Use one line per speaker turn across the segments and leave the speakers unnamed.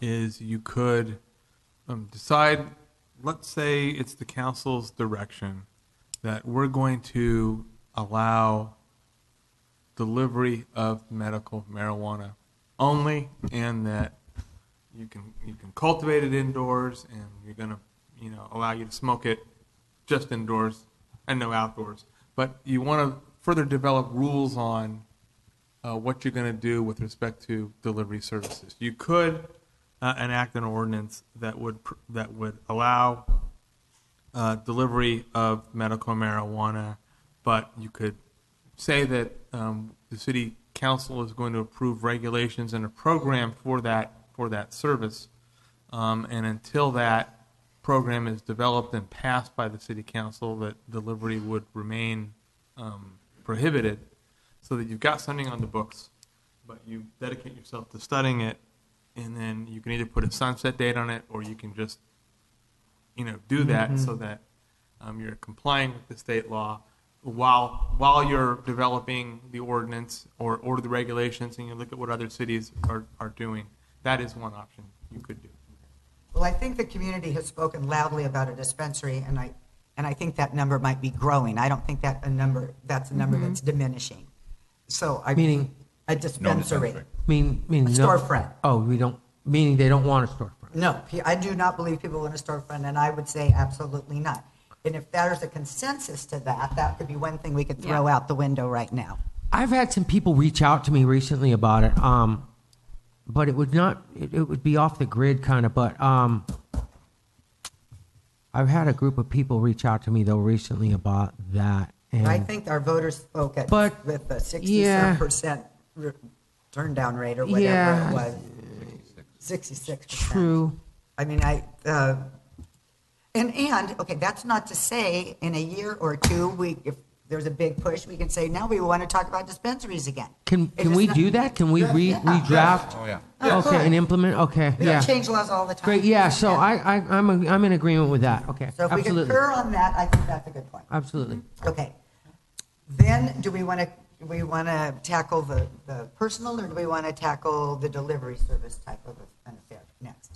is you could um, decide, let's say it's the council's direction that we're going to allow delivery of medical marijuana only and that you can, you can cultivate it indoors and you're going to, you know, allow you to smoke it just indoors and no outdoors. But you want to further develop rules on uh, what you're going to do with respect to delivery services. You could uh, enact an ordinance that would pr- that would allow uh, delivery of medical marijuana, but you could say that um, the city council is going to approve regulations and a program for that for that service. Um, and until that program is developed and passed by the city council, that delivery would remain um, prohibited. So that you've got something on the books, but you dedicate yourself to studying it, and then you can either put a sunset date on it, or you can just, you know, do that so that um, you're complying with the state law while while you're developing the ordinance or or the regulations, and you look at what other cities are are doing. That is one option you could do.
Well, I think the community has spoken loudly about a dispensary, and I, and I think that number might be growing. I don't think that a number, that's a number that's diminishing. So I.
Mm-hmm. Meaning?
A dispensary.
Mean, mean.
A
no-
storefront.
Oh, we don't, meaning they don't want a storefront.
No, pe- I do not believe people in a storefront, and I would say absolutely not. And if there's a consensus to that, that could be one thing we could throw out the window right now.
I've had some people reach out to me recently about it, um, but it would not, it, it would be off the grid kind of, but, um, I've had a group of people reach out to me though recently about that. And
I think our voters spoke at,
But-
with a
yeah.
sixty-seven percent turn down rate or whatever
Yeah.
it was. Sixty-six percent.
True.
I mean, I, uh, and, and, okay, that's not to say in a year or two, we, if there's a big push, we can say, now we want to talk about dispensaries again.
Can,
It
can
is
we
not-
do that? Can we re,
Yeah.
redraft?
Oh, yeah.
Okay, and implement, okay,
We don't
yeah.
change laws all the time.
Great, yeah, so I, I, I'm, a- I'm in agreement with that, okay,
So if we
absolutely,
concur on that, I think that's a good point.
absolutely.
Okay. Then, do we want to, do we want to tackle the, the personal, or do we want to tackle the delivery service type of an affair next?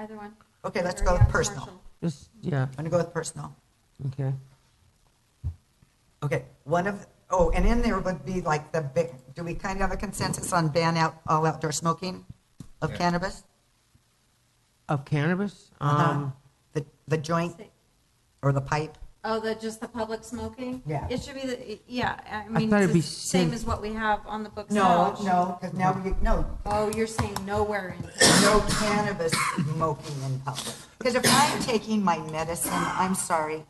Either one.
Okay, let's
Or
go
yeah,
with personal.
commercial.
Just, yeah,
I'm going to go with personal.
okay.
Okay, one of, oh, and in there would be like the big, do we kind of have a consensus on ban out, all outdoor smoking of cannabis?
Of cannabis,
Uh-huh.
um.
The, the joint or the pipe?
Oh, the, just the public smoking?
Yeah.
It should be, the yeah, I mean,
thought it'd
it's
be
the same
safe.
as what we have on the books now.
No, no, because now we, no,
Oh, you're saying nowhere in,
no cannabis smoking in public. Because if I'm taking my medicine, I'm sorry,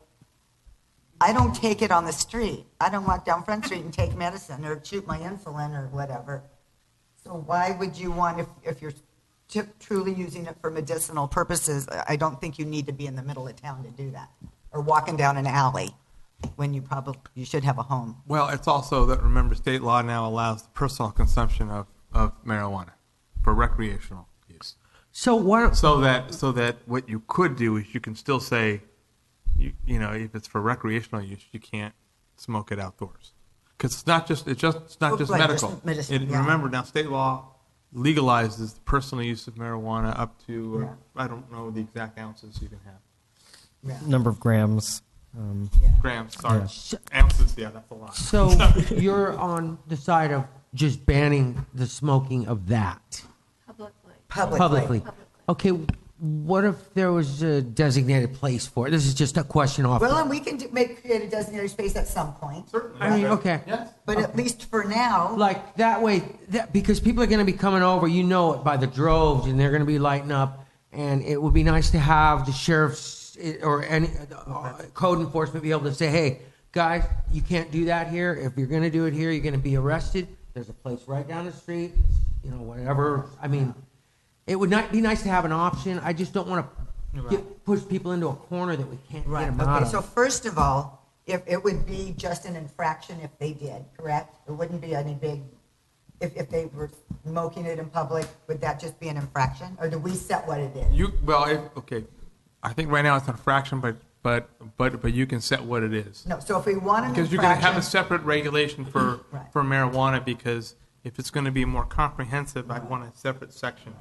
I don't take it on the street. I don't walk down Front Street and take medicine or shoot my insulin or whatever. So why would you want, if, if you're t- truly using it for medicinal purposes, I I don't think you need to be in the middle of town to do that. Or walking down an alley when you probably, you should have a home.
Well, it's also that remember state law now allows the personal consumption of, of marijuana for recreational use.
So why don't
So that so that what you could do is you can still say, you, you know, if it's for recreational use, you can't smoke it outdoors because it's not just it's just it's not
Well,
just
Oh, like just
medical.
medicine,
It-
yeah.
Remember now, state law legalizes the personal use of marijuana up to uh, I don't know the exact ounces you can have
number of grams. Um,
grams. Sorry, ounces. Yeah, that's a lot.
so you're on the side of just banning the smoking of that
publicly.
publicly? Okay, what if there was a designated place for it? This is just a question off.
Well, and we can do- make, create a designated space at some point.
Certainly.
I mean, okay.
Yes.
But at least for now.
like that way, that, because people are going to be coming over, you know it by the droves, and they're going to be lighting up. And it would be nice to have the sheriff's eh, or any uh, code enforcement be able to say, "Hey, guys, you can't do that here. If you're going to do it here, you're going to be arrested. There's a place right down the street. You know, whatever. I mean, it would not be nice to have an option. I just don't want to push people into a corner that we can't
Right,
get them out
okay,
of.
so first of all, if, it would be just an infraction if they did, correct? It wouldn't be any big, if, if they were smoking it in public, would that just be an infraction? Or do we set what it is?
You well, if, okay. I think right now it's not a fraction, but but but but you can set what it is
No, so if we want an
because you're going to have a
infraction,
separate regulation for
Right.
for marijuana because if it's going to be more comprehensive, I'd want a separate section